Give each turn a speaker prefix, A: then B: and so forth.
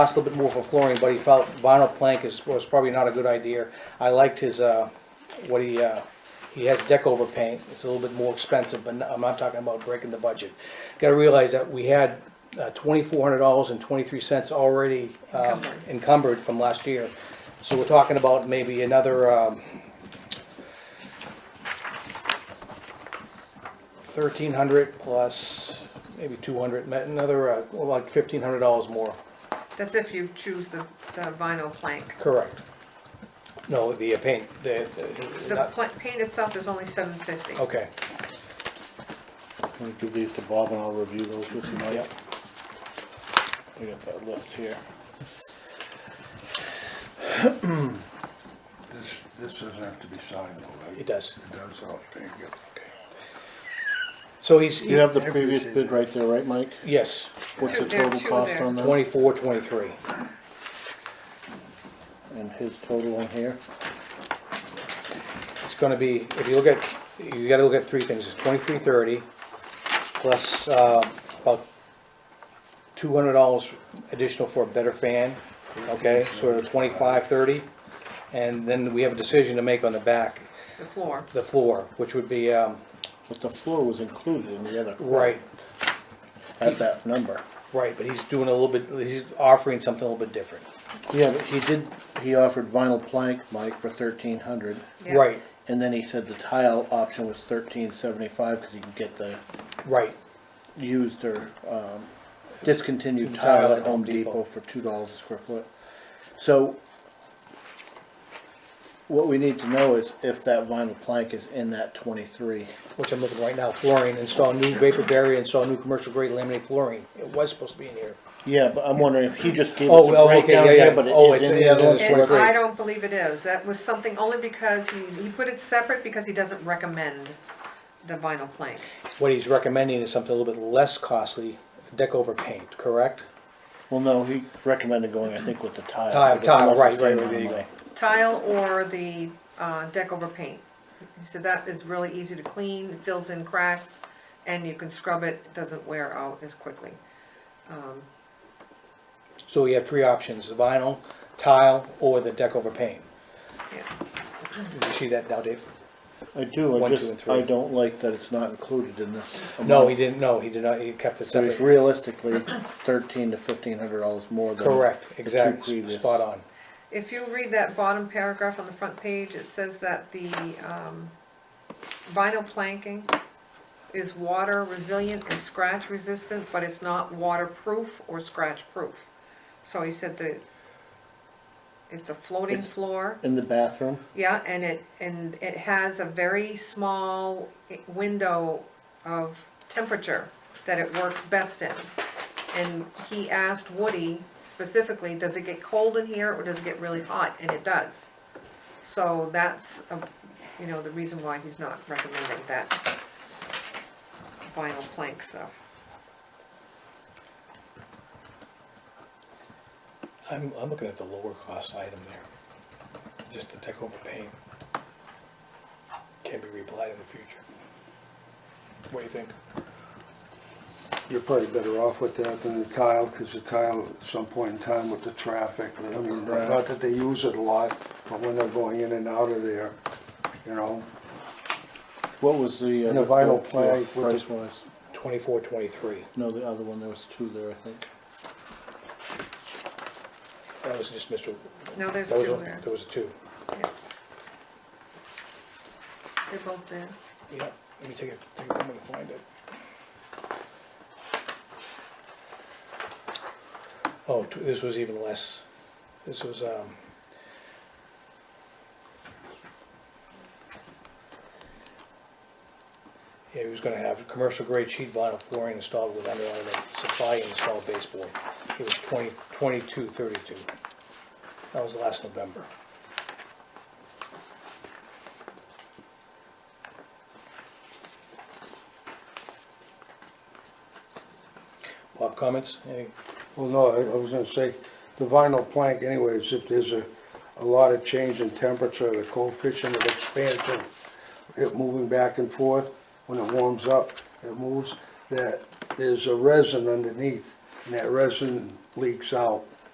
A: Cost a little bit more for flooring, but he felt vinyl plank is, was probably not a good idea. I liked his, uh, what he, uh, he has deck over paint, it's a little bit more expensive, but I'm not talking about breaking the budget. Gotta realize that we had uh, twenty-four hundred dollars and twenty-three cents already uh,
B: Encumbered.
A: encumbered from last year. So we're talking about maybe another, um, thirteen hundred plus maybe two hundred, another, uh, well, like fifteen hundred dollars more.
B: That's if you choose the, the vinyl plank.
A: Correct. No, the uh, paint, the, the-
B: The
A: not-
B: pla- paint itself is only seven fifty.
A: okay,
C: I'm gonna give these to Bob and I'll review those with you, Mike.
A: Yep.
C: I got that list here.
D: This, this doesn't have to be signed though, right?
A: it does.
D: It does, oh, thank you.
A: So he's, he-
C: You have the previous bid right there, right, Mike?
A: yes,
C: What's
B: Two
C: the
B: there,
C: total
B: two
C: cost
B: there.
C: on that?
A: twenty-four, twenty-three.
C: And his total on here?
A: It's gonna be, if you look at, you gotta look at three things, it's twenty-three thirty, plus, uh, about two hundred dollars additional for a better fan, okay, sort of twenty-five thirty. And then we have a decision to make on the back,
B: The floor.
A: the floor, which would be, um,
C: But the floor was included in the other. quote
A: right,
C: At that number.
A: right, but he's doing a little bit, he's offering something a little bit different.
C: Yeah, but he did, he offered vinyl plank, Mike, for thirteen hundred.
B: Yeah.
A: Right,
C: And then he said the tile option was thirteen seventy-five, cause you can get the
A: right,
C: used or, um, discontinued
A: Tile
C: tile at Home Depot for two dollars a square foot. So what we need to know is if that vinyl plank is in that twenty-three.
A: which I'm looking right now, flooring, install new vapor barrier, install new commercial grade laminate flooring. It was supposed to be in here.
C: Yeah, but I'm wondering if he just gave
A: Oh,
C: us a
A: well, okay,
C: breakdown
A: yeah, yeah.
C: here, but it
A: Oh,
C: is
A: it's-
C: in
A: it
C: the
A: is
C: other
A: in
C: one.
A: the
C: so
B: And
C: it's-
A: Twenty-three.
B: I don't believe it is. That was something only because he, he put it separate because he doesn't recommend the vinyl plank.
A: What he's recommending is something a little bit less costly, deck over paint, correct?
C: Well, no, he recommended going, I think, with the tile.
A: Tile,
C: so that
A: tile,
C: must
A: right,
C: have
A: right,
C: been
A: there you
C: on
A: go.
B: Tile or the, uh, deck over paint. He said that is really easy to clean, it fills in cracks, and you can scrub it, it doesn't wear out as quickly. Um,
A: So we have three options, the vinyl, tile, or the deck over paint.
B: yeah.
A: Did you see that now, Dave?
C: my- I do, I
A: One, two, and
C: just,
A: three.
C: I don't like that it's not included in this.
A: No,
C: amount.
A: he didn't, no, he did not, he kept it
C: So it's
A: separate.
C: realistically thirteen to fifteen hundred dollars more than.
A: Correct,
C: the two
A: exactly,
C: previous.
A: spot on.
B: If you read that bottom paragraph on the front page, it says that the um, vinyl planking is water resilient and scratch resistant, but it's not waterproof or scratch proof. So he said that it's a floating
C: It's-
B: floor,
C: In the bathroom,
B: yeah, and it, and it has a very small window of temperature that it works best in. And he asked Woody specifically, does it get cold in here or does it get really hot? And it does. So that's, a- you know, the reason why he's not recommending that vinyl plank stuff.
A: I'm, I'm looking at the lower cost item there, just the deck over paint. Can be replied in the future. What do you think?
D: You're probably better off with that than the tile, because the tile, at some point in time with the traffic, I mean, not that they use it a lot, but when they're going in and out of there, you know,
C: what was the?
D: And the
C: other
D: vinyl
C: quote for
D: plank with
C: Price
D: the-
C: wise,
A: Twenty-four, twenty-three.
C: no, the other one, there was two there, I think.
A: That was just Mr.
B: No, there's
A: That was
B: two
A: a-
B: there.
A: There was a two.
B: Yeah. They're both there.
A: Yeah, let me take it, take a moment to find it. Oh, t- this was even less. This was, um. Yeah, he was gonna have commercial grade sheet vinyl flooring installed with underlying supply and installed baseboard. It was twenty, twenty-two thirty-two. That was last November. Bob, comments? Any?
D: well, no, I I was gonna say, the vinyl plank anyways, if there's a, a lot of change in temperature, the coefficient of expansion, it moving back and forth, when it warms up, it moves, that there's a resin underneath, and that resin leaks out.